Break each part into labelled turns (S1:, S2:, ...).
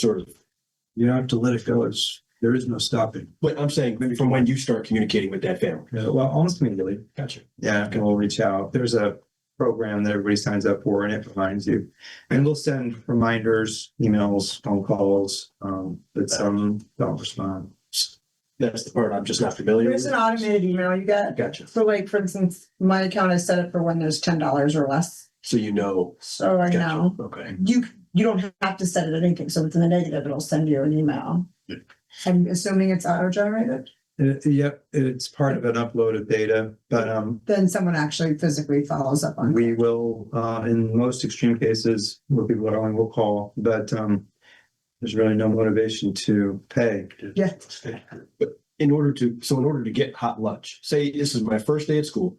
S1: sort of.
S2: You don't have to let it go. It's, there is no stopping.
S1: But I'm saying maybe from when you start communicating with that family.
S3: Yeah, Uh, well, almost immediately.
S1: Gotcha.
S3: Yeah, and we'll reach out. There's a program that everybody signs up for and it reminds you. And we'll send reminders, emails, phone calls, um, but some don't respond.
S1: That's the part I'm just not familiar with.
S4: There's an automated email you get.
S1: Gotcha.
S4: So like, for instance, my account is set up for when there's ten dollars or less.
S1: So you know.
S4: So right
S1: Gotcha.
S4: now,
S1: Okay.
S4: you, you don't have to set it at anything. So if it's in the negative, it'll send you an email.
S1: Yeah.
S4: I'm assuming it's auto generated,
S3: Uh, yep, it's part of an upload of data, but, um,
S4: then someone actually physically follows up on. it.
S3: we will, uh, in most extreme cases, where people are only will call, but, um, there's really no motivation to pay.
S4: Yeah.
S1: But in order to, so in order to get hot lunch, say this is my first day at school.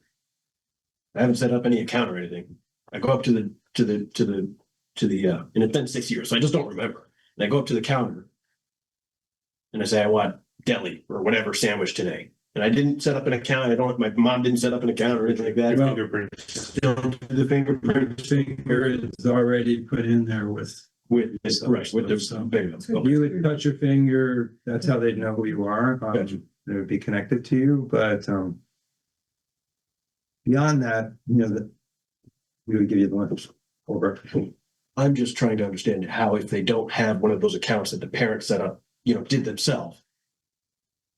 S1: I haven't set up any account or anything. I go up to the, to the, to the, to the, uh, and it's been six years, so I just don't remember. And I go up to the counter. And I say, I want deli or whatever sandwich today. And I didn't set up an account. I don't, my mom didn't set up an account or anything like that.
S2: The fingerprint finger is already put in there with,
S1: With, this- right, with the,
S2: So-
S1: bingo.
S3: You would touch your finger, that's how they'd know who you are. um,
S1: Gotcha.
S3: They would be connected to you, but, um, beyond that, you know, that we would give you the lunch over.
S1: I'm just trying to understand how if they don't have one of those accounts that the parents set up, you know, did themselves.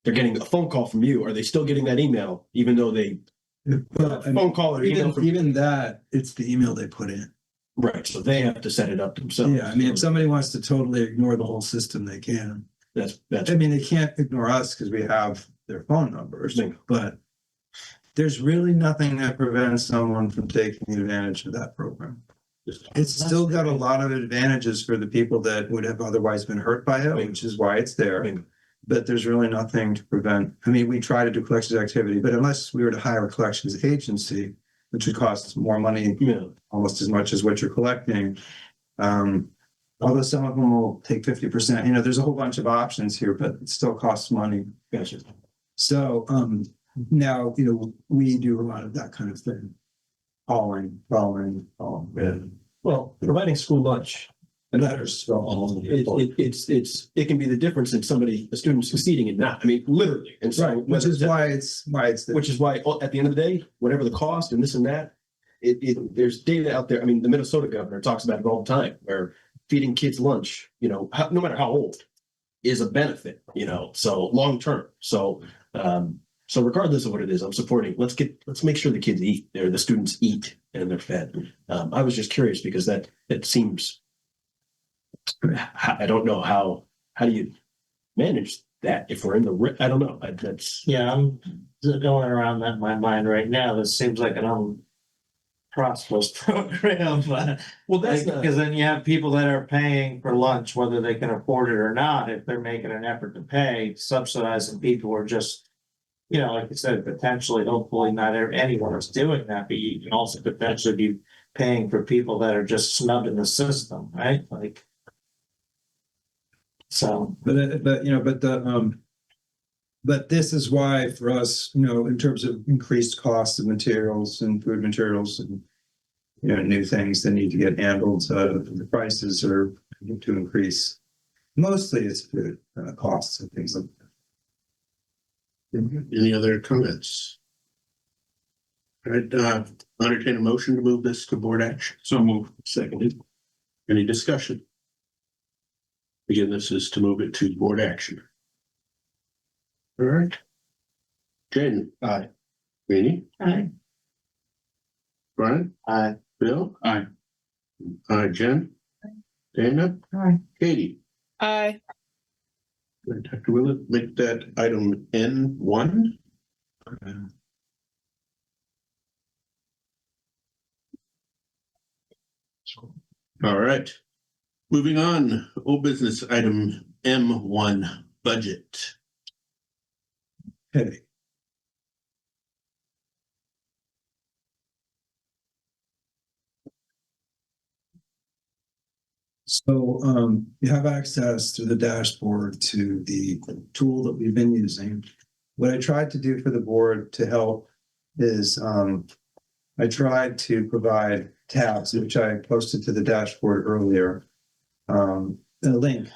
S1: They're getting a phone call from you. Are they still getting that email even though they
S2: but I mean,
S1: phone call or email
S2: even,
S1: from Oh, you?
S2: even that, it's the email they put in.
S1: Right, so they have to set it up themselves.
S2: Yeah, I mean, if somebody wants to totally ignore the whole system, they can.
S1: That's, that's,
S3: I mean, they can't ignore us because we have their phone numbers,
S1: Bingo.
S3: but there's really nothing that prevents someone from taking advantage of that program. It's still got a lot of advantages for the people that would have otherwise been hurt by it,
S1: Bingo.
S3: which is why it's there.
S1: Bingo.
S3: But there's really nothing to prevent, I mean, we try to do collections activity, but unless we were to hire a collections agency, which would cost more money,
S1: yeah,
S3: almost as much as what you're collecting. Um, although some of them will take fifty percent, you know, there's a whole bunch of options here, but it still costs money.
S1: gotcha.
S2: So, um,
S1: Mm-hmm.
S3: Now, you know, we do a lot of that kind of thing. Calling, following, following.
S5: Well, providing school lunch,
S3: Letters. for all of
S1: It,
S3: the
S1: it, it's, it's, it can be the difference in somebody, a student succeeding and not, I mean, literally. And so.
S3: Right, which
S1: whether
S3: is
S1: that-
S3: why it's, why it's. there.
S1: Which is why, oh, at the end of the day, whatever the cost and this and that, it, it, there's data out there. I mean, the Minnesota governor talks about it all the time, where feeding kids lunch, you know, how, no matter how old, is a benefit, you know, so long term. So, um, so regardless of what it is, I'm supporting, let's get, let's make sure the kids eat, or the students eat and they're fed. Um, I was just curious because that, that seems, I I don't know how, how do you manage that if we're in the, ri- I don't know, I- that's.
S5: yeah, I'm going around that in my mind right now. This seems like an unprosperous program, but
S1: Well,
S5: because then you have people that are paying for lunch, whether they can afford it or not, if they're making an effort to pay, subsidizing people who are just, you know, like you said, potentially, hopefully not ev- anyone is doing that, but you can also potentially be paying for people that are just snubbed in the system, right? Like. So.
S2: But, uh, but, you know, but the, um,
S3: But this is why for us, you know, in terms of increased costs of materials and food materials and you know, new things that need to get handled, uh, the prices are to increase. Mostly it's food, uh, costs and things like.
S6: Any other comments? All right, uh, entertain a motion to move this to board action. So move. Seconded. Any discussion? Again, this is to move it to board action. All right. Jaden. Aye. Rainey.
S4: Aye.
S6: Brian.
S5: Aye.
S6: Bill. Aye. Uh, Jen. Dana.
S4: Aye.
S6: Katie.
S7: Aye,
S6: Dr. Willett, make that item N one. All right. Moving on, old business item M one, budget.
S3: Okay.
S2: so, um, you have access through the dashboard to the tool that we've been using.
S3: what I tried to do for the board to help is um. I tried to provide tabs, which I posted to the dashboard earlier. Um, a link